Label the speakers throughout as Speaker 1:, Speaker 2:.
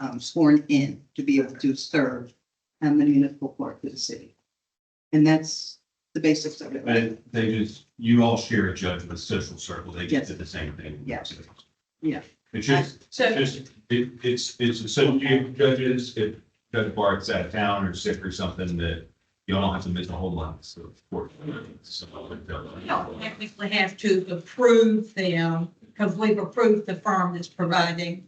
Speaker 1: um, sworn in to be able to serve on the municipal court for the city. And that's the basics of it.
Speaker 2: But they just, you all share a judge with social circle, they
Speaker 1: Yes.
Speaker 2: just did the same thing.
Speaker 1: Yeah. Yeah.
Speaker 2: It's just,
Speaker 3: So,
Speaker 2: just, it, it's, it's, so you judges, if Judge Bart's out of town or sick or something, that you all don't have to miss a whole lot, so of course. so,
Speaker 3: we don't technically have to approve them because we've approved the firm that's providing.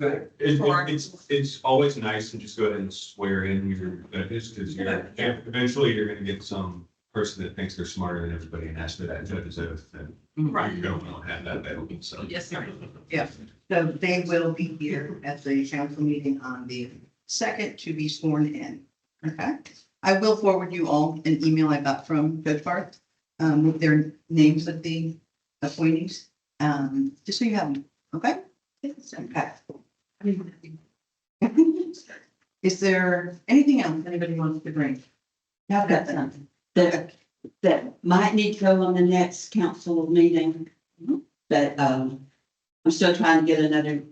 Speaker 2: But it- it- It's, it's always nice to just go ahead and swear in your judges, because you're, eventually you're gonna get some person that thinks they're smarter than everybody and ask for that judge's oath, and you're gonna wanna have that available, so.
Speaker 3: Yes, sir.
Speaker 1: So they will be here at the council meeting on the second to be sworn in. Okay? I will forward you all an email I got from Judge Barth um, with their names of the appointees, um, just so you have them, okay? Okay. Is there anything else anybody wants to bring?
Speaker 4: I've got something that, that might need to go on the next council meeting. But, um, I'm still trying to get another,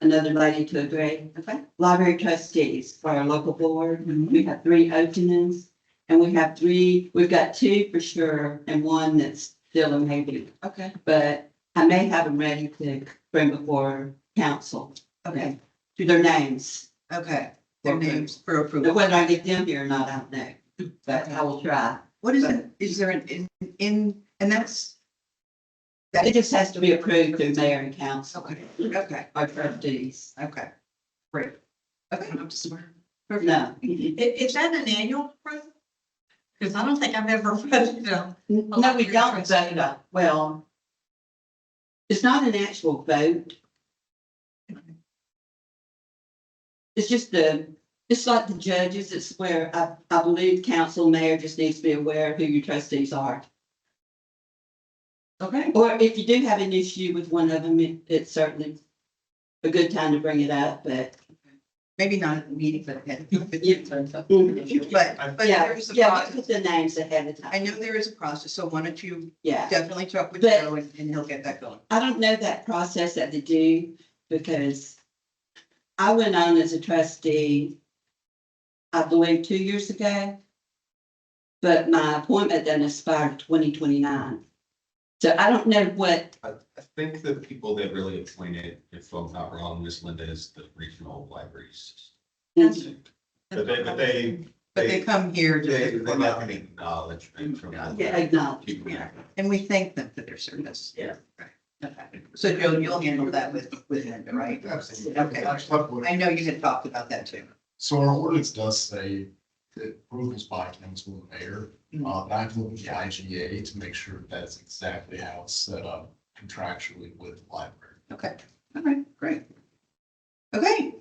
Speaker 4: another lady to agree.
Speaker 1: Okay.
Speaker 4: Library trustees for our local board. We have three openings and we have three, we've got two for sure and one that's still a maybe.
Speaker 1: Okay.
Speaker 4: But I may have them ready to bring before council,
Speaker 1: Okay,
Speaker 4: their names.
Speaker 1: okay, their names for approval.
Speaker 4: Whether I get them here or not, I don't know, but I will try.
Speaker 1: What is it, is there an, in, in, and that's,
Speaker 4: It just has to be approved through mayor and council
Speaker 1: okay, okay.
Speaker 4: or trustees.
Speaker 1: Okay, great. Okay, I'm just.
Speaker 4: No,
Speaker 3: I- Is that an annual approval? Because I don't think I've ever voted on.
Speaker 4: no, we don't vote on, well, it's not an actual vote. It's just the, it's like the judges, it's where I, I believe council mayor just needs to be aware of who your trustees are.
Speaker 1: Okay.
Speaker 4: Or if you do have an issue with one of them, it- it's certainly a good time to bring it up, but.
Speaker 1: Maybe not at the meeting, but at. But, but there
Speaker 4: Yeah,
Speaker 1: is a
Speaker 4: yeah, we
Speaker 1: process.
Speaker 4: put the names ahead of time.
Speaker 1: I know there is a process, so why don't you
Speaker 4: Yeah.
Speaker 1: definitely talk with
Speaker 4: But-
Speaker 1: Joe and, and he'll get that going.
Speaker 4: I don't know that process that they do because I went on as a trustee, I believe, two years ago. But my appointment then expired twenty twenty-nine. So I don't know what,
Speaker 2: I, I think the people that really explain it, if I'm not wrong, Miss Linda is the regional libraries. But they, but they,
Speaker 1: But they come here just
Speaker 2: they,
Speaker 1: as a
Speaker 2: they like an
Speaker 1: formality,
Speaker 2: acknowledgement from. the-
Speaker 4: yeah, acknowledge.
Speaker 2: people.
Speaker 1: Yeah. and we thank them for their service.
Speaker 4: Yeah.
Speaker 1: Right, Okay, so Joe, you'll handle that with, with Linda, right?
Speaker 5: Absolutely.
Speaker 1: Okay. I know you had talked about that too.
Speaker 5: So our ordinance does say that approvals by council and mayor, uh, and I've looked at the IGA to make sure that's exactly how it's set up contractually with the library.
Speaker 1: Okay, all right, great. Okay,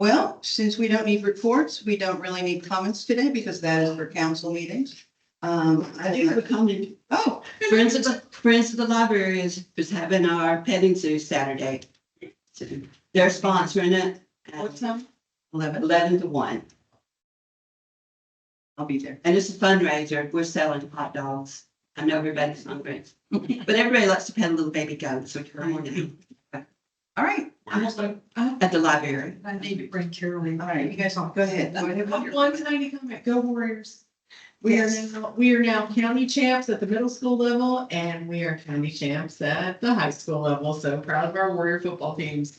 Speaker 1: well, since we don't need reports, we don't really need comments today because that is for council meetings. Um,
Speaker 4: I do have a comment.
Speaker 1: oh,
Speaker 4: Friends of the, Friends of the Library is, is having our petting zoo Saturday. So They're sponsoring it
Speaker 1: what's
Speaker 4: at
Speaker 1: that? Eleven,
Speaker 4: eleven to one.
Speaker 1: I'll be there.
Speaker 4: And it's a fundraiser. We're selling hot dogs. I know everybody's hungry, but everybody likes to pet a little baby goat, so come on down
Speaker 1: All right,
Speaker 4: at the library.
Speaker 3: I need to bring Carolyn.
Speaker 1: all right, you guys all, go ahead. Go ahead with your-
Speaker 6: One tiny comment, go Warriors. We are
Speaker 1: Yes.
Speaker 6: now, we are now county champs at the middle school level and we are county champs at the high school level. So proud of our Warrior football teams.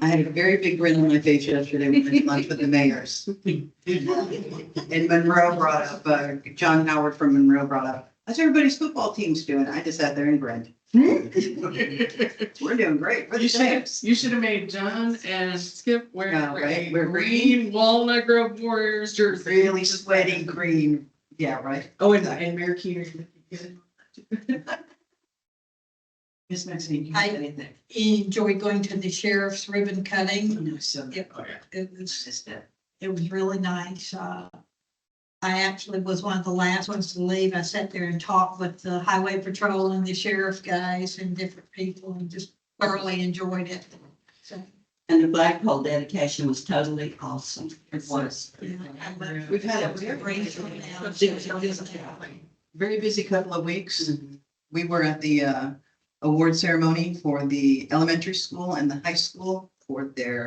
Speaker 1: I had a very big grin on my face yesterday when I lunch with the mayors. And Monroe brought up, uh, John Howard from Monroe brought up, how's everybody's football teams doing? I just sat there and grinned. We're doing great. We're the
Speaker 6: You should,
Speaker 1: champs.
Speaker 6: you should have made John and Skip wear
Speaker 1: No,
Speaker 6: a
Speaker 1: right, we're
Speaker 6: green Walnut Grove Warriors jersey.
Speaker 1: Really sweaty green. Yeah, right.
Speaker 6: Oh, and, and Mayor Keener.
Speaker 1: Miss Maxine. you
Speaker 3: I-
Speaker 1: have anything?
Speaker 3: Enjoyed going to the sheriff's ribbon cutting.
Speaker 1: No, so.
Speaker 3: Yep. It was,
Speaker 1: Just that.
Speaker 3: it was really nice. Uh, I actually was one of the last ones to leave. I sat there and talked with the highway patrol and the sheriff guys and different people and just thoroughly enjoyed it. So,
Speaker 4: And the flagpole dedication was totally awesome.
Speaker 1: It was.
Speaker 3: yeah, I love-
Speaker 1: We've had a
Speaker 3: It was a great show now.
Speaker 1: very busy couple of weeks. We were at the uh, award ceremony for the elementary school and the high school for their